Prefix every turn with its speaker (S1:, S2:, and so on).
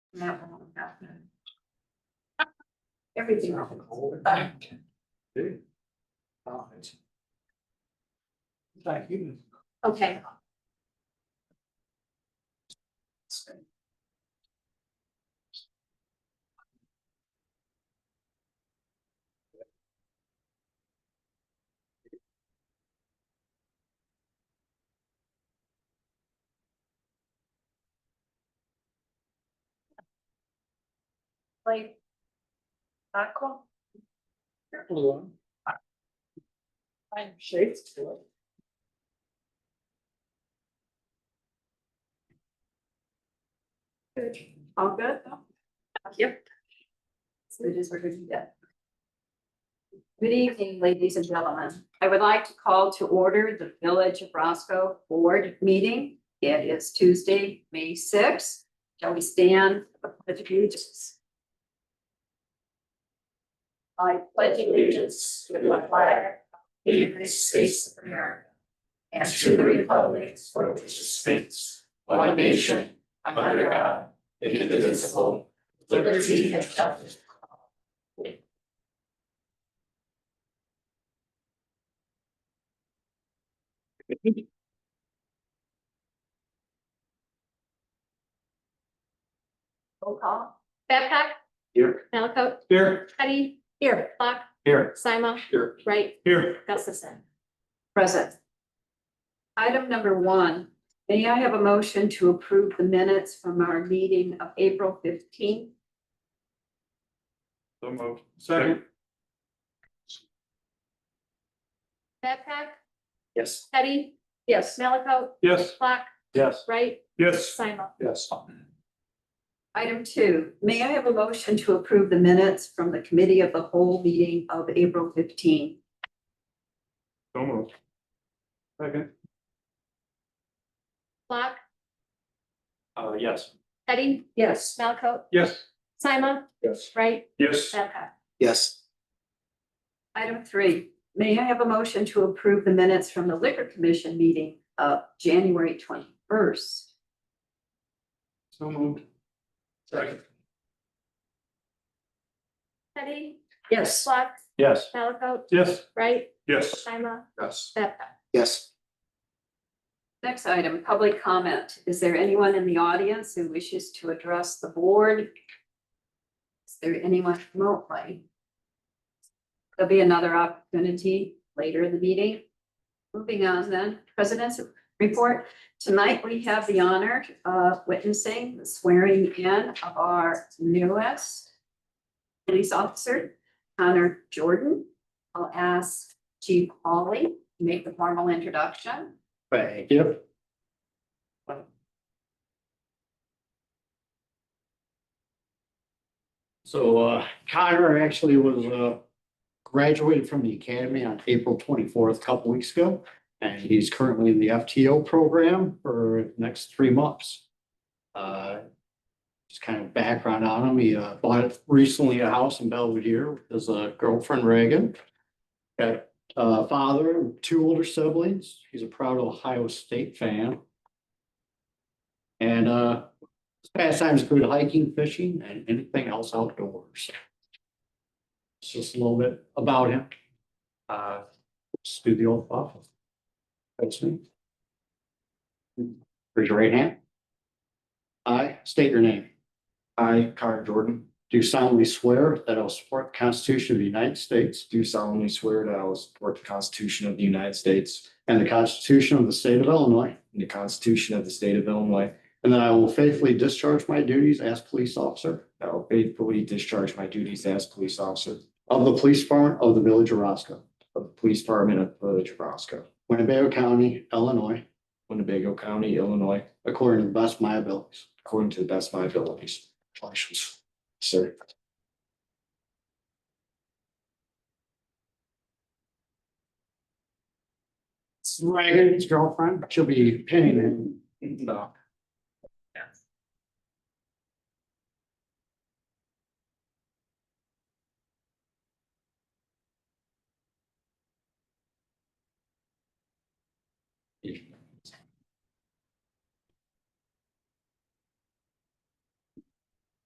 S1: Not wrong, happening. Everything wrong.
S2: Thank you.
S1: Okay. Like. Aqua.
S2: Blue one.
S1: Fine shades to it. Good, all good? Yep. So it is what we did. Good evening, ladies and gentlemen. I would like to call to order the Village of Roscoe Board Meeting. It is Tuesday, May sixth. Shall we stand for the pledge of allegiance? I pledge allegiance to the flag the United States of America, and to the republic for which it
S3: stands, one nation, under God, indivisible, with liberty and justice.
S1: Roll call. Babcock.
S3: Here.
S1: Malaco.
S3: Here.
S1: Teddy. Here. Clock.
S3: Here.
S1: Sima.
S3: Here.
S1: Right.
S3: Here.
S1: Gustafson. Present. Item number one, may I have a motion to approve the minutes from our meeting of April fifteenth?
S3: So moved. Second.
S4: Babcock,
S3: Yes.
S4: Teddy,
S1: Yes.
S4: Malaco,
S3: Yes.
S4: Black,
S3: Yes.
S4: Wright,
S3: Yes.
S4: Simon.
S3: Yes.
S1: Item two, may I have a motion to approve the minutes from the committee of the whole meeting of April fifteenth?
S3: So moved. Second.
S4: Black,
S3: Uh, yes.
S4: Teddy,
S1: Yes.
S4: Malaco,
S3: Yes.
S4: Simon,
S3: Yes.
S4: Wright,
S3: Yes.
S4: Babcock.
S3: Yes.
S1: Item three, may I have a motion to approve the minutes from the liquor commission meeting of January twenty-first?
S3: So moved. Second.
S4: Teddy,
S1: Yes.
S4: Black,
S3: Yes.
S4: Malaco,
S3: Yes.
S4: Wright,
S3: Yes.
S4: Simon,
S3: Yes.
S4: Babcock.
S3: Yes.
S1: Next item, public comment. Is there anyone in the audience who wishes to address the board? Is there anyone remotely? There'll be another opportunity later in the meeting. Moving on then, president's report. Tonight, we have the honor of witnessing the swearing in of our newest police officer, Connor Jordan. I'll ask Chief Hawley to make the formal introduction.
S3: Thank you.
S5: So uh, Connor actually was uh, graduated from the academy on April twenty-fourth, a couple weeks ago. And he's currently in the FTO program for the next three months. Uh, Just kind of background on him, he uh, bought recently a house in Belvedere with his uh, girlfriend Reagan. Got a father, and two older siblings, he's a proud Ohio State fan. And uh, his Pastimes include hiking, fishing, and anything else outdoors. It's Just a little bit about him. Uh, let's do the old office. That's me. Raise your right hand. I state your name.
S6: I, Connor Jordan,
S5: Do solemnly swear that I will support the Constitution of the United States
S6: do solemnly swear that I will support the Constitution of the United States
S5: and the Constitution of the State of Illinois,
S6: and the Constitution of the State of Illinois.
S5: and that I will faithfully discharge my duties as police officer
S6: that I will faithfully discharge my duties as police officer
S5: of the Police Department of the Village of Roscoe,
S6: of the Police Department of the Village of Roscoe,
S5: Winnebago County, Illinois,
S6: Winnebago County, Illinois,
S5: according to the best of my abilities.
S6: according to the best of my abilities.
S5: Congratulations.
S6: Sir.
S5: Reagan's girlfriend, she'll be pinning him.
S6: No.